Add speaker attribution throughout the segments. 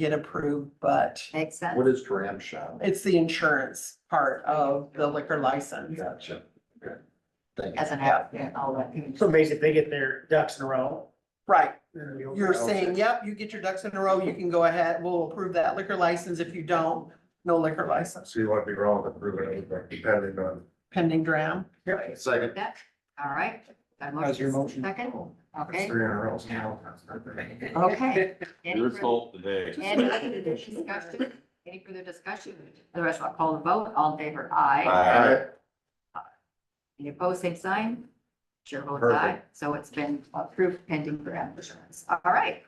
Speaker 1: get approved, but
Speaker 2: Makes sense.
Speaker 3: What is dram shop?
Speaker 1: it's the insurance part of the liquor license.
Speaker 3: Gotcha. Okay. Thank you.
Speaker 2: Doesn't have yeah, all that.
Speaker 4: So basically, if they get their ducks in a row.
Speaker 1: Right,
Speaker 4: then it'll be okay.
Speaker 1: you're saying, yep, you get your ducks in a row, you can go ahead, we'll approve that liquor license. If you don't, no liquor license
Speaker 5: So you want to be wrong with approving anything depending on.
Speaker 1: pending dram.
Speaker 3: Second.
Speaker 2: That, all right. Got a
Speaker 3: How's your motion?
Speaker 2: Second,
Speaker 5: That's
Speaker 2: okay,
Speaker 5: Three in a row now.
Speaker 2: okay. Any
Speaker 6: Your
Speaker 2: further-
Speaker 6: fault today.
Speaker 2: Any other discussion? Any further discussion? Otherwise, I'll call the vote. All in favor, aye.
Speaker 5: Alright,
Speaker 2: Any opposed, same sign? Chair votes
Speaker 5: Perfect.
Speaker 2: aye. So it's been approved pending grant insurance. All right.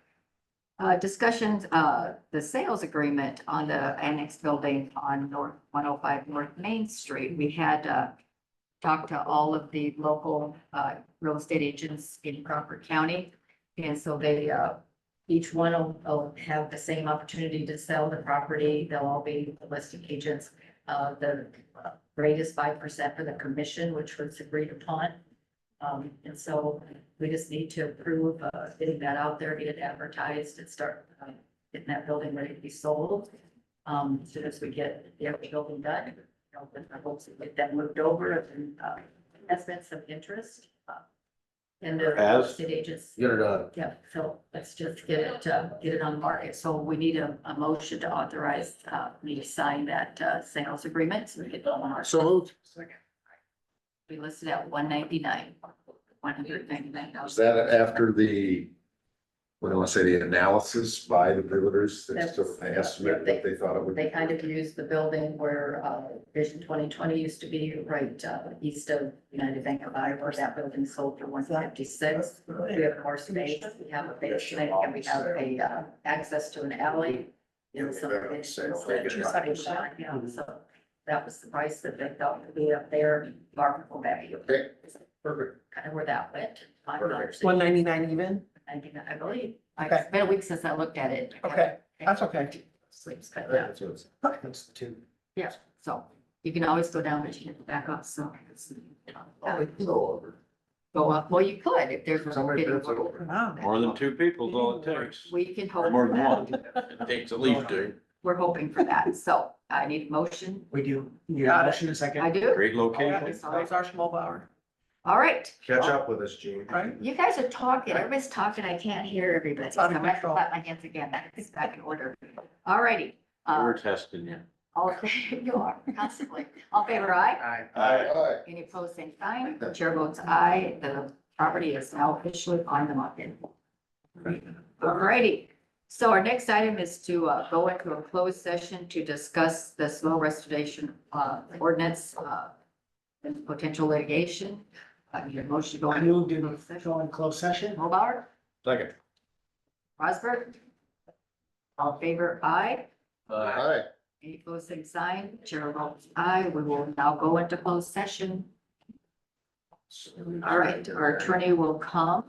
Speaker 2: Uh, discussions, uh, the sales agreement on the annex building on North, one oh five North Main Street. We had, uh, talked to all of the local, uh, real estate agents in Crawford County. And so they, uh, each one will, will have the same opportunity to sell the property. They'll all be listing agents. Uh, the uh, rate is five percent for the commission, which was agreed upon. Um, and so we just need to approve, uh, getting that out there, get it advertised and start, uh, getting that building ready to be sold. Um, as soon as we get the other building done, you know, with the hopes to get that moved over and, uh, that's been some interest. uh, In the real
Speaker 6: Has?
Speaker 2: estate agents.
Speaker 3: Get it done.
Speaker 2: Yeah, so let's just get it, uh, get it on market. So we need a, a motion to authorize, uh, me to sign that, uh, sales agreement. So we get that on our,
Speaker 3: So moved.
Speaker 2: we listed at one ninety-nine, one hundred ninety-nine dollars.
Speaker 3: Is that after the, what do I want to say, the analysis by the builders, that's sort of an estimate that they thought it would be?
Speaker 2: They kind of used the building where, uh, Vision twenty twenty used to be, right, uh, east of United Bank of Iowa, where that building sold for one fifty-six. We have more space, we have a basement, and we have a, uh, access to an alley.
Speaker 5: Yeah,
Speaker 2: And so
Speaker 5: we've got
Speaker 2: it's-
Speaker 5: sale.
Speaker 2: it's a
Speaker 1: Second
Speaker 2: intersection,
Speaker 1: shot.
Speaker 2: yeah, so that was the price that they thought would be up there, marketable value.
Speaker 3: Okay, perfect.
Speaker 2: Kind of where that went, five dollars.
Speaker 1: One ninety-nine even?
Speaker 2: I think, I believe, I-
Speaker 1: Okay.
Speaker 2: it's been a week since I looked at it.
Speaker 1: Okay, that's okay.
Speaker 2: Sleep's cut down.
Speaker 3: That's what it's-
Speaker 4: That's the two.
Speaker 2: Yeah, so you can always go down, but you can back up, so. it's,
Speaker 3: Oh,
Speaker 2: uh,
Speaker 3: it's all over.
Speaker 2: Go up, well, you could if there's.
Speaker 5: Somebody bids it over.
Speaker 1: Wow.
Speaker 6: More than two people's all it takes.
Speaker 2: We can hope
Speaker 6: More
Speaker 2: for
Speaker 6: than
Speaker 2: that.
Speaker 6: one. It takes at least two.
Speaker 2: We're hoping for that, so I need a motion.
Speaker 4: We do. You
Speaker 1: Got
Speaker 4: got
Speaker 1: it.
Speaker 4: a motion in a
Speaker 2: I
Speaker 4: second.
Speaker 2: do,
Speaker 6: Great
Speaker 1: That
Speaker 6: location.
Speaker 1: was that was our Schmolbauer,
Speaker 2: all right.
Speaker 5: Catch up with us, Gene.
Speaker 1: right?
Speaker 2: You guys are talking, everybody's talking, I can't hear everybody.
Speaker 1: It's
Speaker 2: So
Speaker 1: out
Speaker 2: I'm
Speaker 1: of
Speaker 2: gonna
Speaker 1: control.
Speaker 2: clap my hands again, that's back in order. All righty, uh,
Speaker 6: We're testing you.
Speaker 2: all, you are constantly, all favor aye?
Speaker 4: Aye.
Speaker 3: Alright.
Speaker 2: Any opposed, same sign. Chair votes aye. The property is now officially on the market. Alrighty. So our next item is to uh, go into a closed session to discuss the snow restoration uh, ordinance uh, and potential litigation. Uh, Your motion
Speaker 4: I
Speaker 2: going.
Speaker 4: moved in, go in closed session.
Speaker 2: Hobart,
Speaker 6: Second.
Speaker 2: Rosberg. All in favor, aye.
Speaker 3: Alright.
Speaker 2: Any opposed, same sign. oh Chair votes aye. We will now go into closed session. All right, our attorney will come